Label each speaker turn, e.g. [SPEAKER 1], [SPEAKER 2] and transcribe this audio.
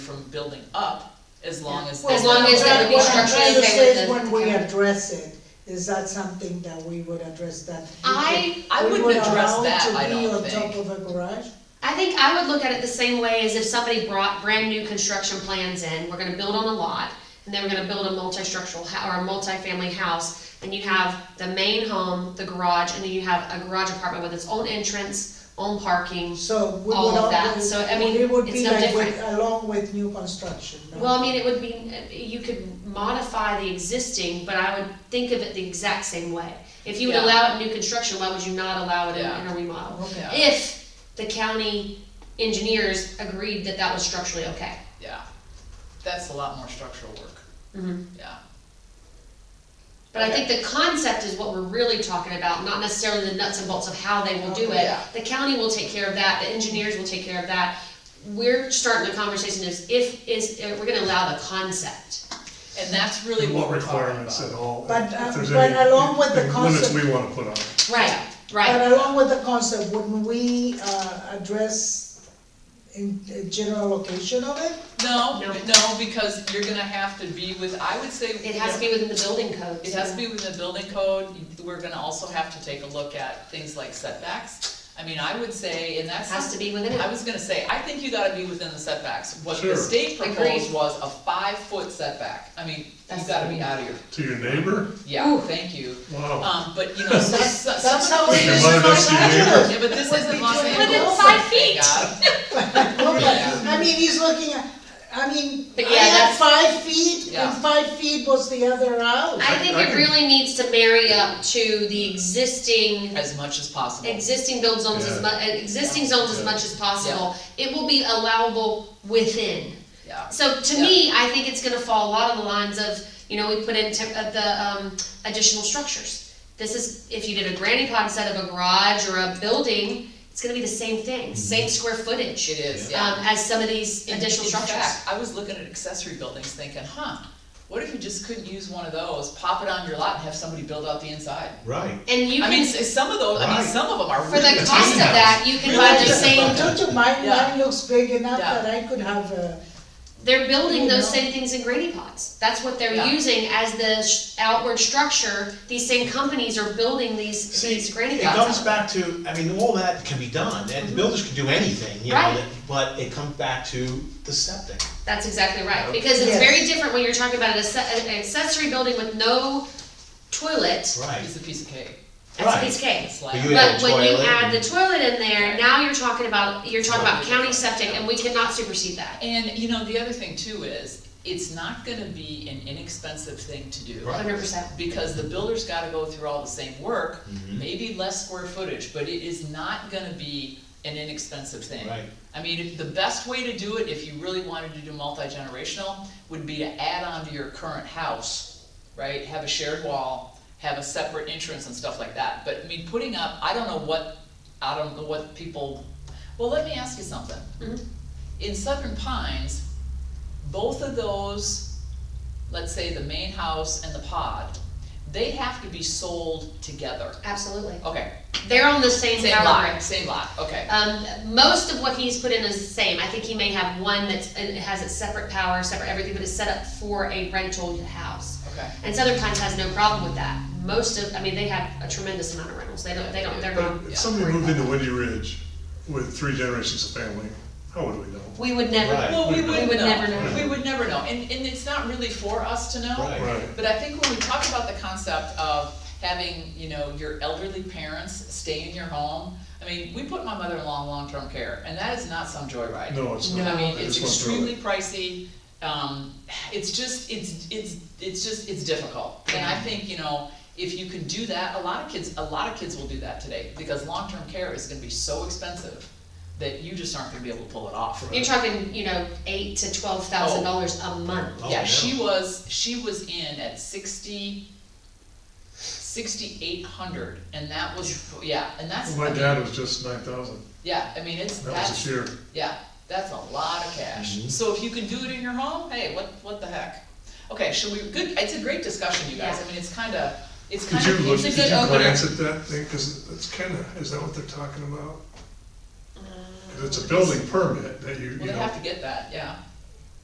[SPEAKER 1] from building up, as long as.
[SPEAKER 2] Well,
[SPEAKER 1] there's
[SPEAKER 3] As long
[SPEAKER 1] not a
[SPEAKER 3] as there would
[SPEAKER 1] driveway.
[SPEAKER 3] be
[SPEAKER 2] what I'm
[SPEAKER 3] structure
[SPEAKER 2] trying to
[SPEAKER 3] okay
[SPEAKER 2] say
[SPEAKER 3] with
[SPEAKER 2] is
[SPEAKER 3] the-
[SPEAKER 2] When we address it, is that something that we would address that? we
[SPEAKER 3] I-
[SPEAKER 2] could-
[SPEAKER 1] I
[SPEAKER 2] we
[SPEAKER 1] wouldn't
[SPEAKER 2] would
[SPEAKER 1] address
[SPEAKER 2] allow
[SPEAKER 1] that,
[SPEAKER 2] to
[SPEAKER 1] I
[SPEAKER 2] be
[SPEAKER 1] don't
[SPEAKER 2] on
[SPEAKER 1] think.
[SPEAKER 2] Top of a garage?
[SPEAKER 3] I think I would look at it the same way as if somebody brought brand new construction plans in, we're gonna build on a lot, and then we're gonna build a multi-structural hou- or a multi-family house, and you have the main home, the garage, and then you have a garage apartment with its own entrance, own parking.
[SPEAKER 2] So we would
[SPEAKER 3] All of that.
[SPEAKER 2] always-
[SPEAKER 3] So, I mean,
[SPEAKER 2] it would
[SPEAKER 3] it's
[SPEAKER 2] be
[SPEAKER 3] no
[SPEAKER 2] like with-
[SPEAKER 3] different.
[SPEAKER 2] Along with new construction, no?
[SPEAKER 3] Well, I mean, it would be, you could modify the existing, but I would think of it the exact same way. If you would
[SPEAKER 1] Yeah.
[SPEAKER 3] allow it in new construction, why would you not allow it in in a remodel?
[SPEAKER 2] Okay,
[SPEAKER 1] Yeah,
[SPEAKER 3] If the county engineers agreed that that was structurally okay.
[SPEAKER 1] yeah, that's a lot more structural work,
[SPEAKER 3] Mm-hmm.
[SPEAKER 1] yeah.
[SPEAKER 3] But I think the concept is what we're really talking about, not necessarily the nuts and bolts of how they will do it.
[SPEAKER 1] Yeah.
[SPEAKER 3] The county will take care of that, the engineers will take care of that. We're starting the conversation is if, is, if we're gonna allow the concept.
[SPEAKER 1] And that's really
[SPEAKER 4] No
[SPEAKER 1] what we're talking
[SPEAKER 4] requirements at
[SPEAKER 1] about.
[SPEAKER 4] all.
[SPEAKER 2] But,
[SPEAKER 4] if
[SPEAKER 2] uh,
[SPEAKER 4] there's
[SPEAKER 2] but
[SPEAKER 4] any-
[SPEAKER 2] along with the
[SPEAKER 4] any
[SPEAKER 2] concept-
[SPEAKER 4] Limits we wanna put on it.
[SPEAKER 3] Right, right.
[SPEAKER 1] uh,
[SPEAKER 2] But along with the concept, wouldn't we, uh, address in, in general location of it?
[SPEAKER 1] No,
[SPEAKER 3] No.
[SPEAKER 1] no, because you're gonna have to be with, I would say.
[SPEAKER 3] It has to be within the building code.
[SPEAKER 1] It has to be within the building code, we're gonna also have to take a look at things like setbacks. I mean, I would say, and that's.
[SPEAKER 3] Has to be within
[SPEAKER 1] I
[SPEAKER 3] it.
[SPEAKER 1] was gonna say, I think you gotta be within the setbacks, what the
[SPEAKER 4] Sure.
[SPEAKER 1] state proposed
[SPEAKER 3] Agreed.
[SPEAKER 1] was a five-foot setback, I mean, you
[SPEAKER 3] That's-
[SPEAKER 1] gotta be out of your,
[SPEAKER 4] To your neighbor?
[SPEAKER 1] yeah, thank you.
[SPEAKER 4] Wow.
[SPEAKER 1] Um, but you know, some, some some
[SPEAKER 2] That's how
[SPEAKER 1] of
[SPEAKER 2] we
[SPEAKER 1] those.
[SPEAKER 4] Your
[SPEAKER 2] It's
[SPEAKER 4] mother
[SPEAKER 2] just
[SPEAKER 4] next to your
[SPEAKER 2] like
[SPEAKER 4] neighbor?
[SPEAKER 1] Yeah, but this isn't Los
[SPEAKER 2] Within
[SPEAKER 1] Angeles.
[SPEAKER 3] five
[SPEAKER 1] thank
[SPEAKER 3] feet.
[SPEAKER 1] God.
[SPEAKER 2] No, but,
[SPEAKER 1] Yeah.
[SPEAKER 2] I mean, he's looking at, I mean, I
[SPEAKER 3] But yeah,
[SPEAKER 2] had
[SPEAKER 3] that's-
[SPEAKER 2] five feet,
[SPEAKER 1] Yeah.
[SPEAKER 2] and five feet was the other house.
[SPEAKER 3] I think
[SPEAKER 4] I
[SPEAKER 3] it
[SPEAKER 4] can-
[SPEAKER 3] really needs to marry up to the existing
[SPEAKER 1] As much as possible.
[SPEAKER 3] existing build zones as mu,
[SPEAKER 4] Yeah.
[SPEAKER 3] uh, existing zones as
[SPEAKER 4] Yeah.
[SPEAKER 3] much as possible. It will be allowable within.
[SPEAKER 1] Yeah,
[SPEAKER 3] So to me, I think it's gonna fall a lot of the lines of, you know, we put in temp- uh, the, um, additional structures. This is, if you did a granny pod instead of a garage or a building, it's gonna be the same thing, same square
[SPEAKER 1] it
[SPEAKER 3] footage,
[SPEAKER 1] is, Mm-hmm. yeah.
[SPEAKER 3] um, as some of these
[SPEAKER 1] In-
[SPEAKER 3] additional
[SPEAKER 1] in
[SPEAKER 3] structures.
[SPEAKER 1] fact, I was looking at accessory buildings thinking, huh, what if you just couldn't use one of those, pop it on your lot and have somebody build out the inside?
[SPEAKER 5] Right.
[SPEAKER 3] And you
[SPEAKER 1] I mean,
[SPEAKER 3] can,
[SPEAKER 1] s- some of those, I mean,
[SPEAKER 5] Right.
[SPEAKER 1] some of them are
[SPEAKER 3] for
[SPEAKER 1] really.
[SPEAKER 3] the cost of
[SPEAKER 1] tiny.
[SPEAKER 3] that, you can buy the same,
[SPEAKER 2] Don't you, mine,
[SPEAKER 1] Yeah.
[SPEAKER 2] mine looks big enough
[SPEAKER 1] Yeah.
[SPEAKER 2] that I could have a,
[SPEAKER 3] they're building those
[SPEAKER 2] You know.
[SPEAKER 3] same things in granny pods. That's what they're
[SPEAKER 1] Yeah.
[SPEAKER 3] using as the sh- outward structure, these same companies are building these,
[SPEAKER 5] See,
[SPEAKER 3] these granny
[SPEAKER 5] it
[SPEAKER 3] pods.
[SPEAKER 5] comes
[SPEAKER 3] out.
[SPEAKER 5] back to, I mean, all that can be done, and the builders can do anything, you know,
[SPEAKER 3] Right.
[SPEAKER 5] that- but it comes back to the septic.
[SPEAKER 3] That's exactly right,
[SPEAKER 5] Yeah.
[SPEAKER 3] because it's
[SPEAKER 2] Yes.
[SPEAKER 3] very different when you're talking about an acce- an accessory building with no toilet,
[SPEAKER 5] Right.
[SPEAKER 1] It's a piece of cake,
[SPEAKER 3] that's a piece of cake.
[SPEAKER 1] it's
[SPEAKER 5] But
[SPEAKER 1] like,
[SPEAKER 5] you- add
[SPEAKER 3] But when you
[SPEAKER 5] toilet
[SPEAKER 3] add the
[SPEAKER 5] and-
[SPEAKER 3] toilet in there,
[SPEAKER 1] Right.
[SPEAKER 3] now you're talking about, you're talking about
[SPEAKER 1] Totally
[SPEAKER 3] county
[SPEAKER 1] different.
[SPEAKER 3] septic, and we cannot supersede that.
[SPEAKER 1] and you know, the other thing too is, it's not gonna be an inexpensive thing to do.
[SPEAKER 5] Right.
[SPEAKER 3] Hundred percent.
[SPEAKER 1] Because the builder's gotta go through all the same work, maybe less square footage, but it is not gonna be an inexpensive thing.
[SPEAKER 5] Right.
[SPEAKER 1] I mean, if- the best way to do it, if you really wanted to do multi-generational, would be to add on to your current house, right? Have a shared wall, have a separate entrance and stuff like that. But I mean, putting up, I don't know what, I don't know what people, well, let me ask you something.
[SPEAKER 3] Mhm.
[SPEAKER 1] In Southern Pines, both of those, let's say the main house and the pod, they have to be sold together.
[SPEAKER 3] Absolutely.
[SPEAKER 1] Okay,
[SPEAKER 3] They're on the same
[SPEAKER 1] same
[SPEAKER 3] power
[SPEAKER 1] lot,
[SPEAKER 3] grid.
[SPEAKER 1] same lot, okay.
[SPEAKER 3] Um, most of what he's put in is the same. I think he may have one that's, it has its separate power, separate everything, but it's set up for a rental house.
[SPEAKER 1] Okay.
[SPEAKER 3] And Southern Pines has no problem with that. Most of, I mean, they have a tremendous amount of rentals. They don't, they don't, they're not.
[SPEAKER 4] But if somebody moved into Windy Ridge with three generations of family, how would we know?
[SPEAKER 3] We would never.
[SPEAKER 5] Right.
[SPEAKER 1] Well, we would
[SPEAKER 3] would never
[SPEAKER 1] know,
[SPEAKER 3] know.
[SPEAKER 1] we would never know, and, and it's not really for us to know.
[SPEAKER 5] Right.
[SPEAKER 4] Right.
[SPEAKER 1] But I think when we talk about the concept of having, you know, your elderly parents stay in your home, I mean, we put my mother-in-law in long-term care, and that is not some joyride.
[SPEAKER 4] No, it's not.
[SPEAKER 1] I mean,
[SPEAKER 4] I
[SPEAKER 1] it's
[SPEAKER 4] just went through it.
[SPEAKER 1] extremely pricey, um, it's just, it's, it's, it's just, it's difficult. And I think, you know, if you can do that, a lot of kids, a lot of kids will do that today, because long-term care is gonna be so expensive that you just aren't gonna be able to pull it off.
[SPEAKER 3] You're talking, you know, eight to twelve thousand dollars a month.
[SPEAKER 5] Oh,
[SPEAKER 1] Yeah,
[SPEAKER 5] no.
[SPEAKER 1] she was, she was in at sixty, sixty-eight hundred, and that was, yeah, and that's,
[SPEAKER 4] Oh My
[SPEAKER 1] I mean,
[SPEAKER 4] dad was just nine thousand,
[SPEAKER 1] yeah, I mean, it's,
[SPEAKER 4] that was Mm-hmm.
[SPEAKER 1] that's,
[SPEAKER 4] this year.
[SPEAKER 1] yeah, that's a lot of cash.
[SPEAKER 5] Mhm.
[SPEAKER 1] So if you can do it in your home, hey, what, what the heck? Okay, should we, good, it's a great discussion, you guys, I
[SPEAKER 3] Yeah.
[SPEAKER 1] mean, it's kinda, it's
[SPEAKER 4] Did
[SPEAKER 1] kinda,
[SPEAKER 4] you look,
[SPEAKER 1] it's a
[SPEAKER 4] did
[SPEAKER 1] good
[SPEAKER 4] you
[SPEAKER 1] opener.
[SPEAKER 4] glance at that thing, cause it's kinda, is that what they're talking about? 'Cause it's a building permit that you,
[SPEAKER 1] Well,
[SPEAKER 4] you
[SPEAKER 1] they
[SPEAKER 4] know,
[SPEAKER 1] have to get that, yeah,